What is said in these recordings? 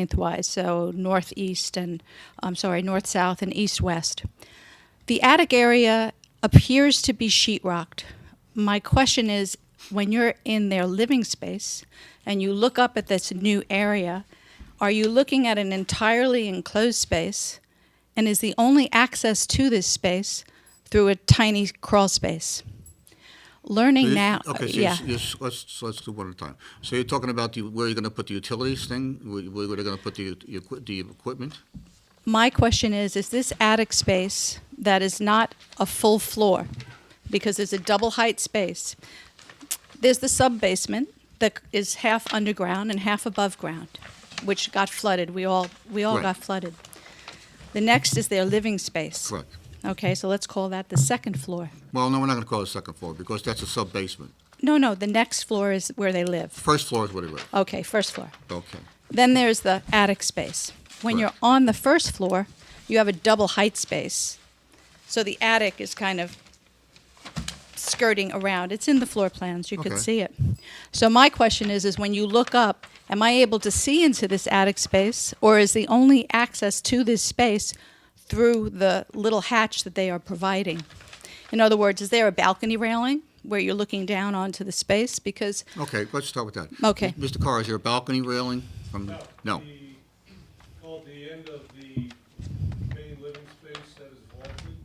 lengthwise, so northeast and, I'm sorry, north-south and east-west. The attic area appears to be sheetrocked. My question is, when you're in their living space and you look up at this new area, are you looking at an entirely enclosed space? And is the only access to this space through a tiny crawl space? Learning You- now, Okay, so yeah. you're- you're s- let's, so let's do one at a time. So you're talking about the, where you're gonna put the utilities thing, where, where they're gonna put the, the equi- the equipment? My question is, is this attic space that is not a full floor, because it's a double height space, there's the sub-basement that is half underground and half above ground, which got flooded, we all, we all Right. got flooded. The next is their living space. Correct. Okay, so let's call that the second floor. Well, no, we're not gonna call it second floor, because that's a sub-basement. No, no, the next floor is where they live. First floor is where they live, Okay, first floor. okay. Then there's the attic space. When you're Correct. on the first floor, you have a double height space. So the attic is kind of skirting around. It's in the floor plans, you could Okay. see it. So my question is is when you look up, am I able to see into this attic space or is the only access to this space through the little hatch that they are providing? In other words, is there a balcony railing where you're looking down onto the space because Okay, let's start with that. Okay. Mr. Carr, is there a balcony railing from, no? the- Called the end of the main living space that is vaulted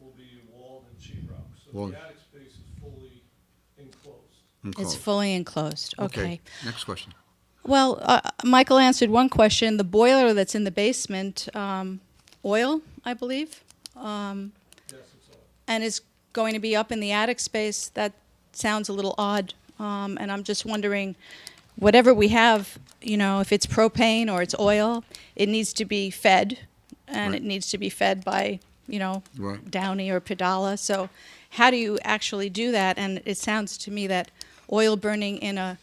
will be walled and sheetrock. So Walled. the attic space is fully enclosed. it's Enclosed. fully enclosed? okay. Next question. Well, uh, Michael answered one question. The boiler that's in the basement, um, oil, I believe, um, Yes, it's all. and is going to be up in the attic space. That sounds a little odd. Um, and I'm just wondering, whatever we have, you know, if it's propane or it's oil, it needs to be fed, and Right. it needs to be fed by, you know, Right. Downey or Padala. So, how do you actually do that? And it sounds to me that oil burning in a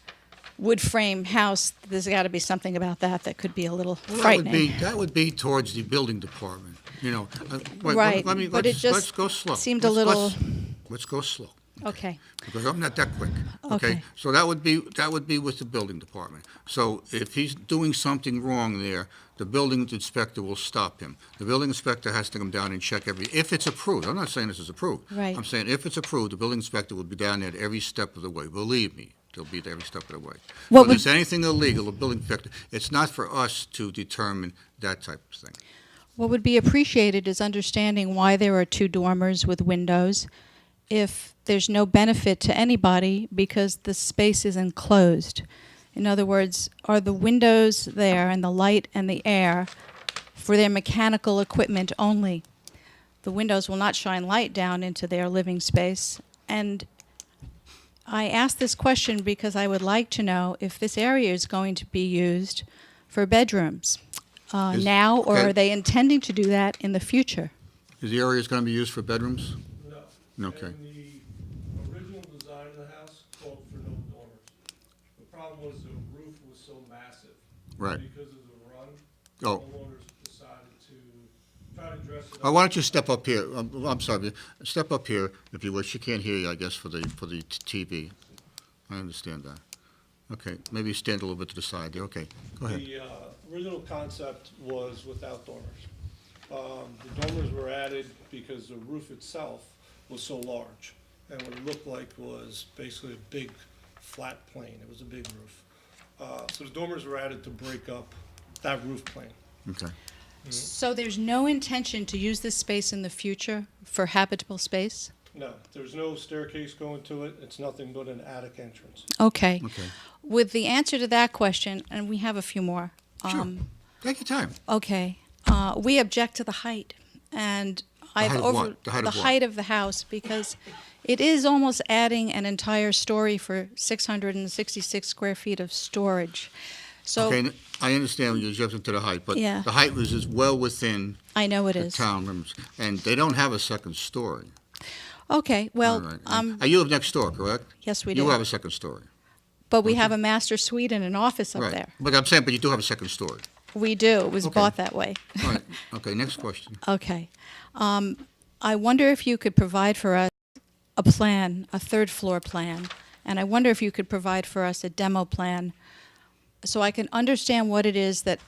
wood frame house, there's got to be something about that that could be a little Well, that would frightening. be, that would be towards the building department, you know. Uh, wait, let- Right, let me- but it let's- just Let's go slow. seemed a Let's- little- let's- Let's go slow. okay. because I'm not that quick. Okay. Okay, so that would be, that would be with the building department. So if he's doing something wrong there, the building inspector will stop him. The building inspector has to come down and check every, if it's approved, I'm not saying this is approved. Right. I'm saying if it's approved, the building inspector will be down there at every step of the way, believe me, they'll be there every step of the way. What If would- there's anything illegal, the building inspector, it's not for us to determine that type of thing. What would be appreciated is understanding why there are two dormers with windows if there's no benefit to anybody because the space is enclosed. In other words, are the windows there and the light and the air for their mechanical equipment only? The windows will not shine light down into their living space. And I ask this question because I would like to know if this area is going to be used for bedrooms uh, Is- now, or okay. are they intending to do that in the future? Is the area going to be used for bedrooms? No. Mm-hmm. Okay. And the original design of the house called for no dormers. The problem was the roof was so massive. Right. Because of the run. Oh. Homeowners decided to try to dress it up. Uh, Why don't you step up here? I'm I'm sorry, step up here if you wish. She can't hear you, I guess, for the, for the t- TV. I understand that. Okay, maybe stand a little bit to the side there. Okay, go ahead. The uh, original concept was without dormers. Um, The dormers were added because the roof itself was so large, and what it looked like was basically a big flat plane. It was a big roof. Uh, So the dormers were added to break up that roof plane. Okay. Mm-hmm. So there's no intention to use this space in the future for habitable space? No, there's no staircase going to it. It's nothing but an attic entrance. Okay. Okay. With the answer to that question, and we have a few more. Sure. um, Take your time. Okay. Uh, we object to the height, and I've height of over what? The height of what? the house because it is almost adding an entire story for 666 square feet of storage. So Okay, n- I understand you're jumping to the height, but Yeah. the height was is well within I know it the is. town limits. And they don't have a second story. Okay. Well, All right. um, Uh, You live next door, correct? yes, we You do. have a second story. but we have a master suite and an office up Right. there. But I'm saying, but you do have a second story. We do. It was Okay. bought that way. All right, okay, next question. Okay. Um, I wonder if you could provide for us a plan, a third floor plan, and I wonder if you could provide for us a demo plan so I can understand what it is that